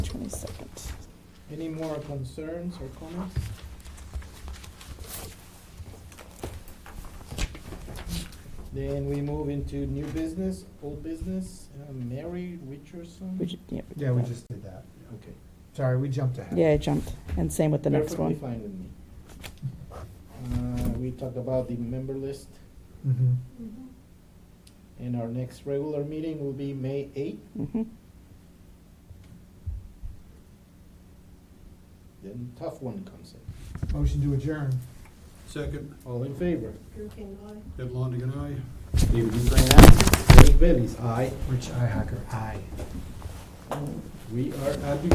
22nd. Any more concerns or comments? Then we move into new business, old business, uh, Mary Richardson. We ju- yeah, we did Yeah, we that. just did that. Okay. Sorry, we jumped ahead. Yeah, I jumped. And same with the next one. Perfectly fine with me. Uh, we talked about the member list, Mhm. and our next regular meeting will be May eighth. Mhm. Then tough one comes in. Motion to adjourn. Second, All in favor? Drew King, aye. Ed Longigan, aye. David Dufresne, aye. Derek Bellis, aye. Rich Ihacker, aye. We are at the